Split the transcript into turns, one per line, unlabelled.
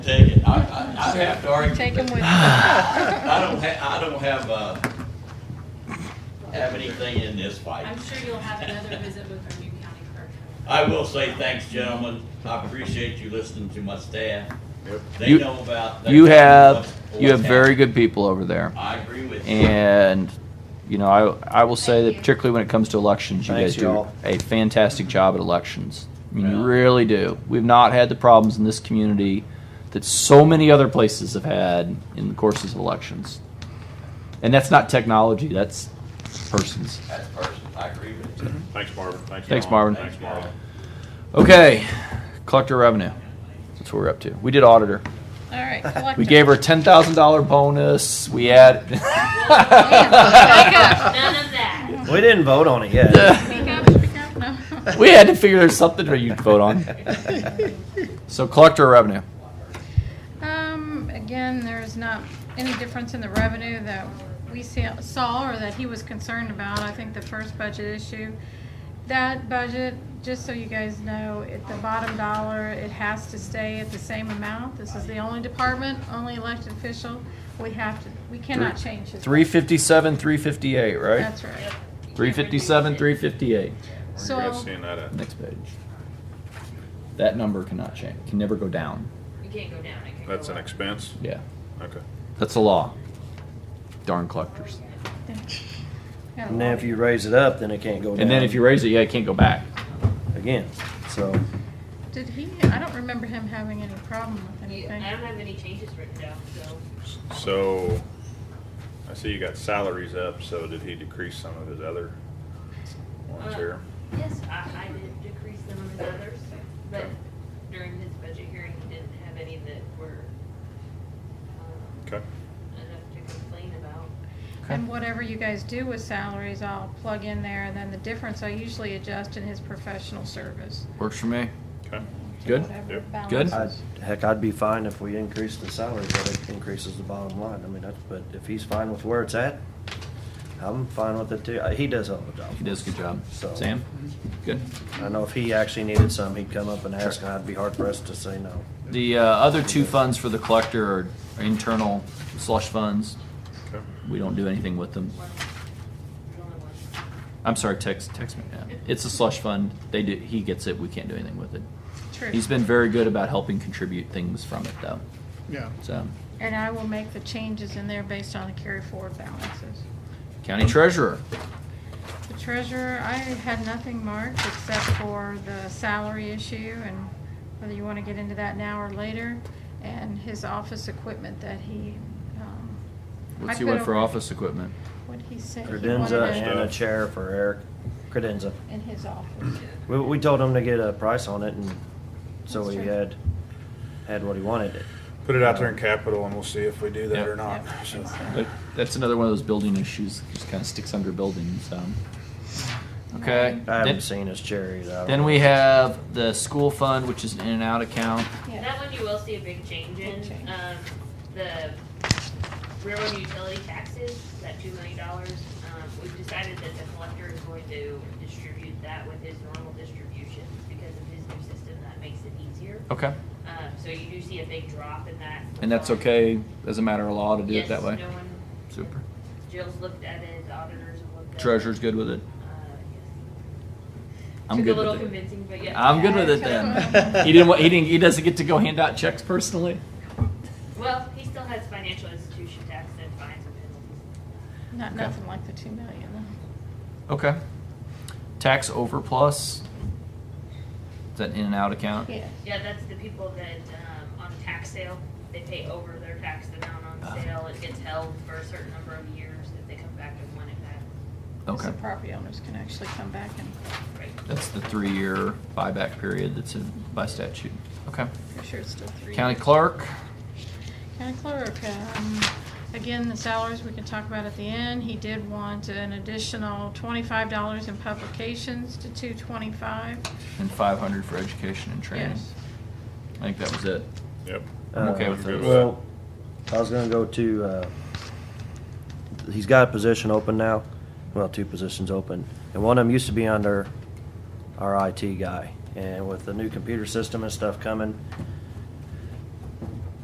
I have to argue.
Take
with
them with you.
I don't ha, I don't have, uh, have anything in this fight.
I'm sure you'll have another visit with our new county clerk.
I will say thanks, gentlemen. I appreciate you listening to my staff. They
You-
know about. they
You
know
have,
what's-
you have
what's
very
happening.
good people over there.
I agree with you.
And, you know, I, I will say that particularly when it comes to elections, you
Thanks,
guys do
y'all.
a fantastic job at elections. I mean,
Yeah.
you really do. We've not had the problems in this community that so many other places have had in the courses of elections. And that's not technology, that's persons.
That's personal. I agree with you.
Thanks, Marvin. Thanks,
Thanks,
Ron.
Marvin.
Thanks, Marvin.
Okay, collector revenue. That's what we're up to. We did auditor.
All right, collect
We
them.
gave her a ten thousand dollar bonus. We had.
Back up.
None of that.
We didn't vote on it yet.
Speak up, speak up, no.
we had to figure there's something for you to vote on. So collector revenue.
Um, again, there's not any difference in the revenue that we sa- saw or that he was concerned about. I think the first budget issue, that budget, just so you guys know, at the bottom dollar, it has to stay at the same amount. This is the only department, only elected official. We have to, we cannot change his.
Three fifty seven, three fifty eight, right?
That's right.
Three fifty seven, three fifty eight.
So.
Where you guys seeing that at?
Next page. That number cannot change. Can never go down.
You can't go down, it can go
That's an
up.
expense?
Yeah,
Okay.
that's the law. Darn collectors.
Got a
And then
lot
if
of-
you raise it up, then it can't go down.
And then if you raise it, yeah, it can't go back.
Again, so,
Did he, I don't remember him having any problem with
You-
anything.
I don't have any changes written down, so.
So, I see you got salaries up, so did he decrease some of his other ones
uh,
here?
Yes, I, I did decrease some of his others, but during his budget hearing, he didn't have any that were, um,
Okay.
enough to complain about.
And whatever you guys do with salaries, I'll plug in there, and then the difference I usually adjust in his professional service.
Works for me.
Okay.
So
Good?
whatever
Yep.
Good?
balances.
I'd, heck, I'd be fine if we increased the salary, but it increases the bottom line. I mean, that's, but if he's fine with where it's at, I'm fine with it too. Uh, He does all the job.
He does a good job.
So-
Sam? Good.
I know if he actually needed some, he'd come up and ask, and I'd be hard pressed to say no.
The uh, other two funds for the collector are internal slush funds.
Okay.
We don't do anything with them.
One, there's only one.
I'm sorry, text text me. Yeah. It's a slush fund. They do. He gets it. We can't do anything with it.
True.
He's been very good about helping contribute things from it, though.
Yeah.
So,
And I will make the changes in there based on the carry forward balances.
county treasurer.
The treasurer, I had nothing marked except for the salary issue and whether you want to get into that now or later, and his office equipment that he, um. I
What's he
could
want for
have-
office e- equipment?
What'd he say? He
Credenza
wanted
and
it
a chair for Eric. Credenza.
In his office.
We, we told him to get a price on it, and so
That's
he
true.
had, had what he wanted.
Put it out there in capital and we'll see if we do that or not.
Yep.
So,
But that's another one of those building issues. that Just kind of sticks under buildings. So, okay.
I haven't
Then-
seen his Uh, chair either. I don't
Then
know.
we have the school fund, which is an in and out account.
That one you will see a big change in.
Big change.
Um, the railroad utility taxes, that two million dollars, um, we've decided that the collector is going to distribute that with his normal distributions because of his new system, that makes it easier.
Okay.
Um, so you do see a big drop in that.
And that's okay as a matter of law to do
Yes,
it that way.
no one,
Super.
Jill's looked at it, the auditors have looked at it.
Treasurer's good with it.
Uh, yes.
I'm
Took
good
a little
with it.
convincing, but yeah.
I'm good with it then. he didn't. wa- He didn't. He doesn't get to go hand out checks personally.
Well, he still has financial institution tax and fines and penalties.
Not,
Okay.
nothing like the two million, though.
Okay. Tax overplus. Is that in and out account?
Yes.
Yeah, that's the people that, um, on tax sale, they pay over their tax amount
Ah.
on sale, it gets held for a certain number of years, if they come back and want it back.
Okay.
So property owners can actually come back and,
Right,
That's the three-year buyback period that's in by statute. Okay.
I'm sure it's still three.
County
years.
clerk.
County clerk, um, again, the salaries we can talk about at the end. He did want an additional twenty-five dollars in publications to two twenty-five.
And five hundred for education and training.
Yes.
I think that was it.
Yep.
I'm okay
Uh,
with
those.
Well, I was gonna go to, uh, he's got a position open now, well, two positions open, and one of them used to be under our IT guy, and with the new computer system and stuff coming,